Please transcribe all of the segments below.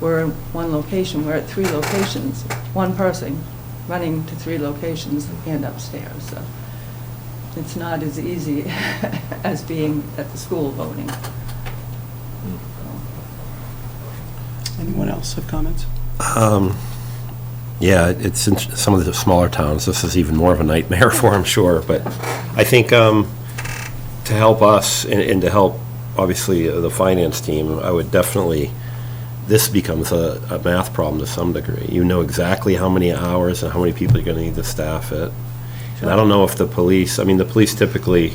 we're in one location, we're at three locations, one person running to three locations and upstairs, so it's not as easy as being at the school voting. Anyone else have comments? Um, Yeah, it's in some of the smaller towns, this is even more of a nightmare for, I'm sure, but I think um, to help us and- and to help, obviously, uh, the finance team, I would definitely, this becomes a a math problem to some degree. You know exactly how many hours and how many people you're going to need to staff it. And I don't know if the police, I mean, the police typically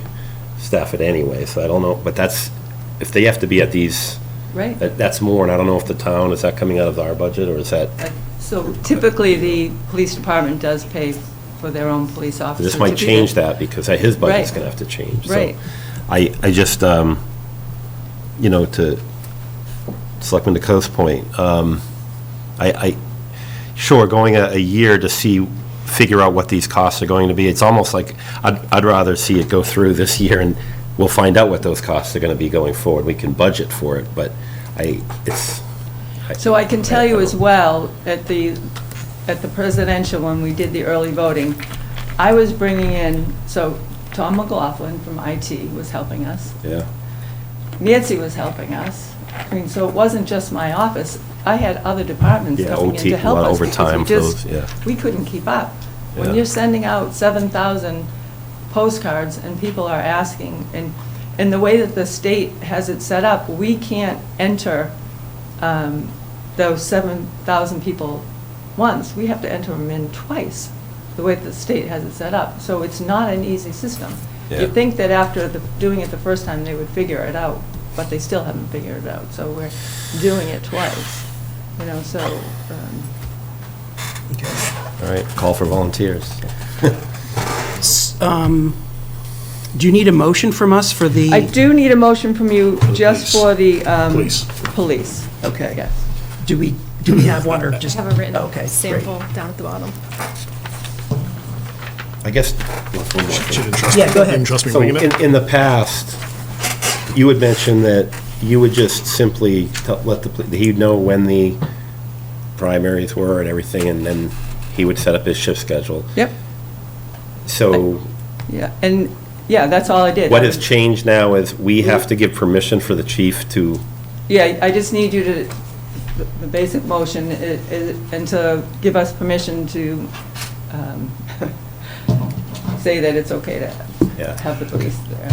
staff it anyway, so I don't know, but that's, if they have to be at these, Right? that- that's more, and I don't know if the town, is that coming out of our budget, or is that Like, So typically, the police department does pay for their own police officers. This to might be change there. that because his budget's Right. going to have to change. So Right. I, I just, um, you know, to Selectman DeCoe's point, um, I, I, sure, going a, a year to see, figure out what these costs are going to be, it's almost like, I'd, I'd rather see it go through this year and we'll find out what those costs are going to be going forward. We can budget for it, but I, it's. I- So I can tell you I- I as well, at the, at the presidential, when we did the early voting, I was bringing in, so Tom McLaughlin from IT was helping us. don't- Yeah. Nancy was helping us. I mean, so it wasn't just my office. I had other departments Yeah, coming in OT, to help a lot us. because of overtime we for just- those, yeah. We couldn't keep up. When Yeah. you're sending out 7,000 postcards and people are asking, and, and the way that the state has it set up, we can't enter um, those 7,000 people once. We have to enter them in twice, the way that the state has it set up. So it's not an easy system. Yeah. You'd think that after the, doing it the first time, they would figure it out, but they still haven't figured it out. So we're doing it twice, you know, so, um, All right, call for volunteers. S- um, Do you need a motion from us for the? I do need a motion from you just Police. for the. um, Police. Police. Okay. Yes. Do we, do we have one or I just? have a Okay, written great. sample down at the bottom. I guess. She didn't trust me. Yeah, go ahead. Didn't trust me So winging it? in, in the past, you had mentioned that you would just simply t- let the, pl- he'd know when the primaries were and everything, and then he would set up his shift schedule. Yep, So yeah, and, yeah, that's all I did. what has changed now is we have to give permission for the chief to, Yeah, I just need you to, the- the basic motion, i- i- and to give us permission to um, say that it's okay Yeah. to have the police there.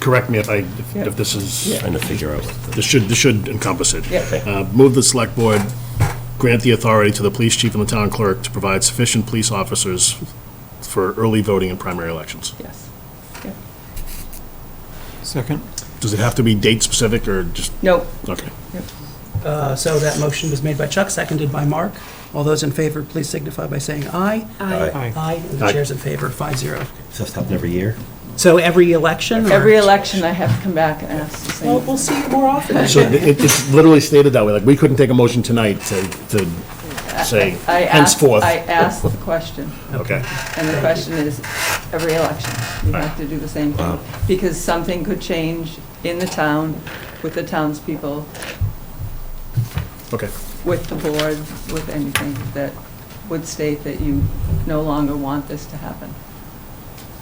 Correct me if I, if- Yeah. if this is, Yeah. trying to figure out. what the- this should, this should encompass it. Yeah. Uh, Move the select board, grant the authority to the police chief and the town clerk to provide sufficient police officers for early voting in primary elections. Yes. Yeah. Second. Does it have to be date specific or just, No, okay. Uh, So that motion was made by Chuck, seconded by Mark. All those in favor, please signify by saying aye. Aye. Aye, and the Aye. chair's in favor, five zero. Does this happen every year? So every election? or- every election I have to come back and ask the Well, same. we'll see you more often. So it, it's literally stated that way, like, we couldn't take a motion tonight to, to say I asked- henceforth. I asked the question. Okay. And the question is, every election, you have to do the same thing. Because something could change in the town, with the townspeople, Okay. with the board, with anything that would state that you no longer want this to happen.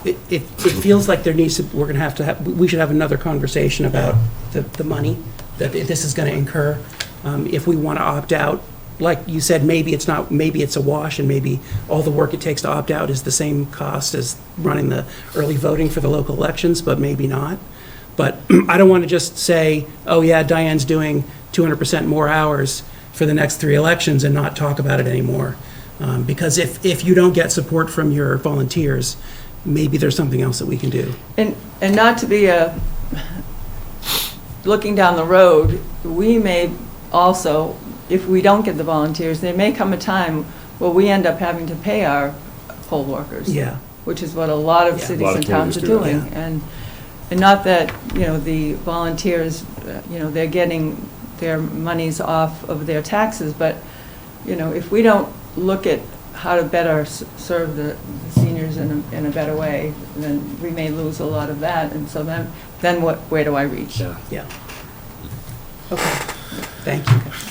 It, it it feels like there needs to, we're going to have to have, we should have another conversation about the, the money that this is going to incur. Um, If we want to opt out, like you said, maybe it's not, maybe it's a wash and maybe all the work it takes to opt out is the same cost as running the early voting for the local elections, but maybe not. But I don't want to just say, oh yeah, Diane's doing 200% more hours for the next three elections and not talk about it anymore. Um, Because if, if you don't get support from your volunteers, maybe there's something else that we can do. And, and not to be a, looking down the road, we may also, if we don't get the volunteers, there may come a time where we end up having to pay our poll workers. Yeah. Which is what a lot of Yeah. cities A lot of and towns are communities do doing. that. And, and not that, you know, the volunteers, uh, you know, they're getting their monies off of their taxes, but, you know, if we don't look at how to better s- serve the the seniors in a, in a better way, then we may lose a lot of that, and so then, then what, where do I reach? Yeah. Okay, thank you.